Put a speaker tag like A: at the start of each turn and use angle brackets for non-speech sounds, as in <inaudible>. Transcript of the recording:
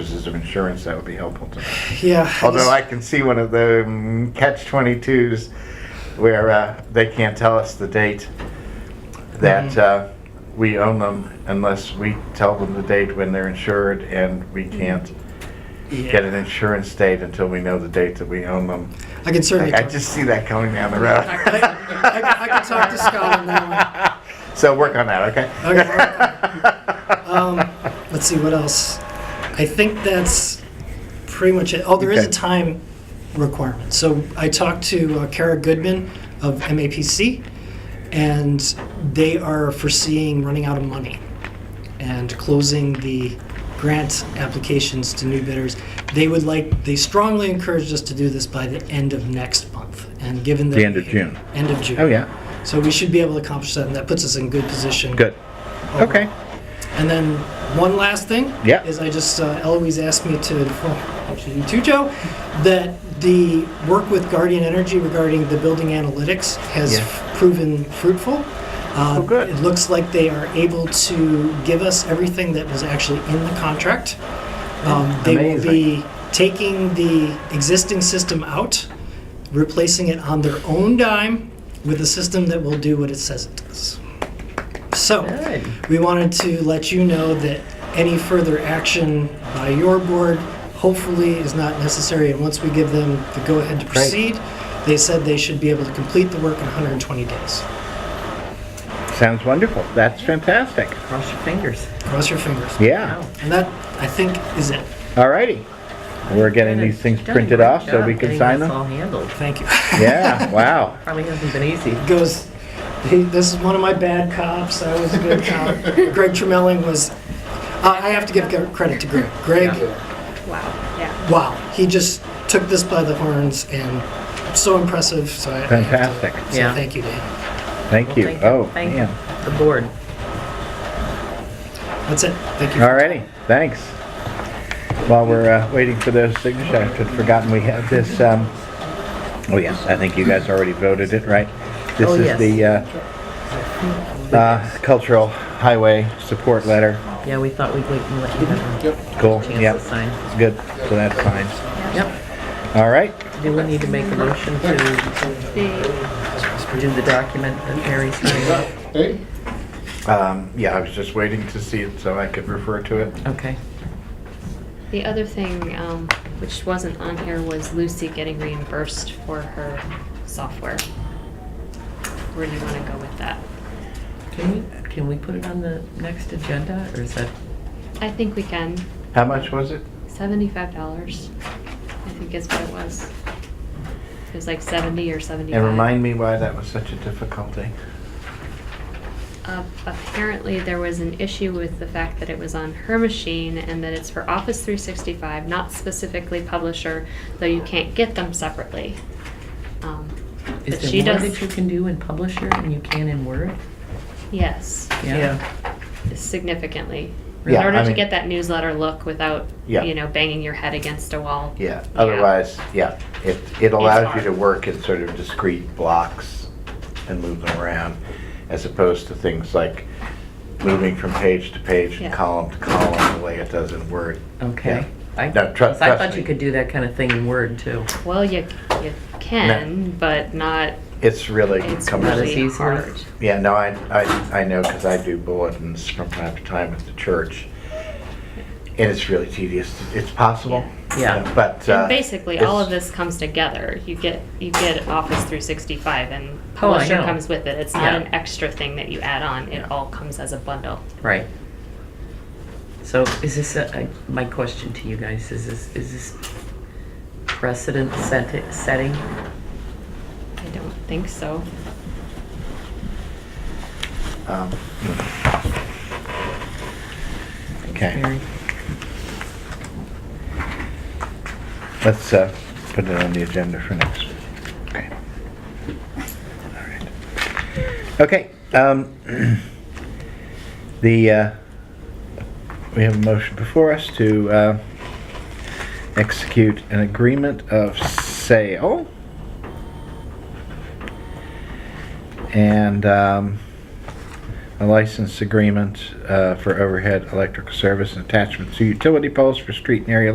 A: purposes of insurance, that would be helpful to know.
B: Yeah.
A: <laughs> Although I can see one of the mm, catch 22s where uh, they can't tell us the date that
B: Mm-hmm.
A: uh, we own them unless we tell them the date when they're insured and
B: Mm-hmm.
A: we can't get an insurance date until we know the date that we own them.
B: I can certainly.
A: I I
B: Talk,
A: just see that coming down the road.
B: I, I can talk to Scott on that
A: <laughs> So work on that, okay?
B: one. Um, let's see what else. I think that's pretty much it. Oh, there is
A: Okay.
B: a time requirement. So I talked to uh, Kara Goodman of MAPC, and they are foreseeing running out of money and closing the grant applications to new bidders. They would like. They strongly encouraged us to do this by the end of next month. And given that
A: The end of June.
B: End of June.
A: Oh, yeah.
B: So we should be able to accomplish that, and that puts us in good position.
A: <laughs> Good. Okay.
B: And then one last thing.
A: Yeah.
B: Is I just uh, Eloise asked me to, well, actually you too, Joe, that the work with Guardian Energy regarding the building analytics has
A: Yeah.
B: proven fruitful. Uh,
A: Oh, good.
B: It looks like they are able to give us everything that was actually in the contract. Um, they will be taking the existing system out, replacing it on their own dime with a system that will do what it says it does. So,
A: Good.
B: we wanted to let you know that any further action by your board hopefully is not necessary. And once we give them the go ahead to proceed, they said they should be able to complete the work in 120 days.
A: Sounds wonderful. That's fantastic.
C: Cross your fingers.
B: Cross your fingers.
A: Yeah.
B: And that, I think, is it.
A: Alrighty. We're getting these things
C: Done a
A: printed
C: great
A: off so
C: job
A: we can
C: getting
A: sign
C: this
A: them.
C: all handled.
B: Thank you.
A: Yeah, wow.
C: Probably hasn't been easy.
B: <laughs> Goes, hey, this is one of my bad cops. I was a
A: <laughs>
B: good cop. Greg Tremelling was, I I have to give credit to Greg. Greg,
D: Wow. Yeah.
B: wow, he just took this by the horns and so impressive. So I, I have to-
A: Fantastic.
B: so
C: Yeah.
B: thank you to him.
A: Thank you.
C: Thank-
A: Oh,
C: thank
A: man.
C: The board.
B: That's it. Thank you.
A: Alrighty, thanks. While we're uh, waiting for those signatures, I had forgotten we have this, um, oh yes, I think you guys already voted it, right? This
C: Oh,
A: is
C: yes.
A: the uh, uh, Cultural Highway Support Letter.
C: Yeah, we thought we'd wait and let you have a
A: Cool,
C: chance to
A: yep,
C: sign.
A: good, so that's fine.
C: Yep.
A: Alright,
C: Do we need to make a motion to
D: The,
C: do the document that Harry's signing?
E: Hey,
A: um, yeah, I was just waiting to see it so I could refer to it.
C: Okay.
D: the other thing, um, which wasn't on here, was Lucy getting reimbursed for her software. Where do you want to go with that?
C: Can we, can we put it on the next agenda or is that?
D: I think we can.
A: How much was it?
D: Seventy-five dollars, I think is what it was. It was like seventy or seventy-five.
A: And remind me why that was such a difficulty.
D: Uh, apparently, there was an issue with the fact that it was on her machine and that it's for Office 365, not specifically Publisher, though you can't get them separately. Um,
C: Is
D: But she
C: there more
D: does-
C: that you can do in Publisher and you can in Word?
D: yes,
C: Yeah.
D: significantly. In
A: Yeah,
D: order
A: I
D: to
A: mean-
D: get that newsletter look without,
A: Yeah.
D: you know, banging your head against a wall.
A: Yeah, otherwise, yeah, it, it allows you
D: hard.
A: to work in sort of discrete blocks and move them around, as opposed to things like moving from page to page and
D: Yeah.
A: column to column, the way it does in Word.
C: Okay. I,
A: No, tru-
C: 'cause I
A: trust
C: thought
A: me.
C: you could do that kind of thing in Word too.
D: Well, you you can, but not.
A: It's really
D: It's
C: Not
A: cumbersome.
C: as
D: really
C: easy.
D: hard.
A: Yeah, no, I, I, I know, because I do bulletins from time to time at the church, and it's really tedious. It's possible.
C: Yeah.
A: uh, But. uh,
D: And basically, all
A: it's-
D: of this comes together. You get you get Office 365, and
C: Oh, I
D: Publisher
C: know.
D: comes with it. It's not
C: Yeah.
D: an extra thing that you add on. It
A: Yeah.
D: all comes as a bundle.
C: Right. So is this, a- I- my question to you guys, is this, is this precedent seti- setting?
D: I don't think so.
A: um, mm. Okay.
C: Mary?
A: Let's uh, put it on the agenda for next week. Okay. All right. Okay. um, <clears throat> The, uh, we have a motion before us to uh, execute an agreement of sale. And um, a license agreement uh, for overhead electrical service and attachment to utility poles for street and area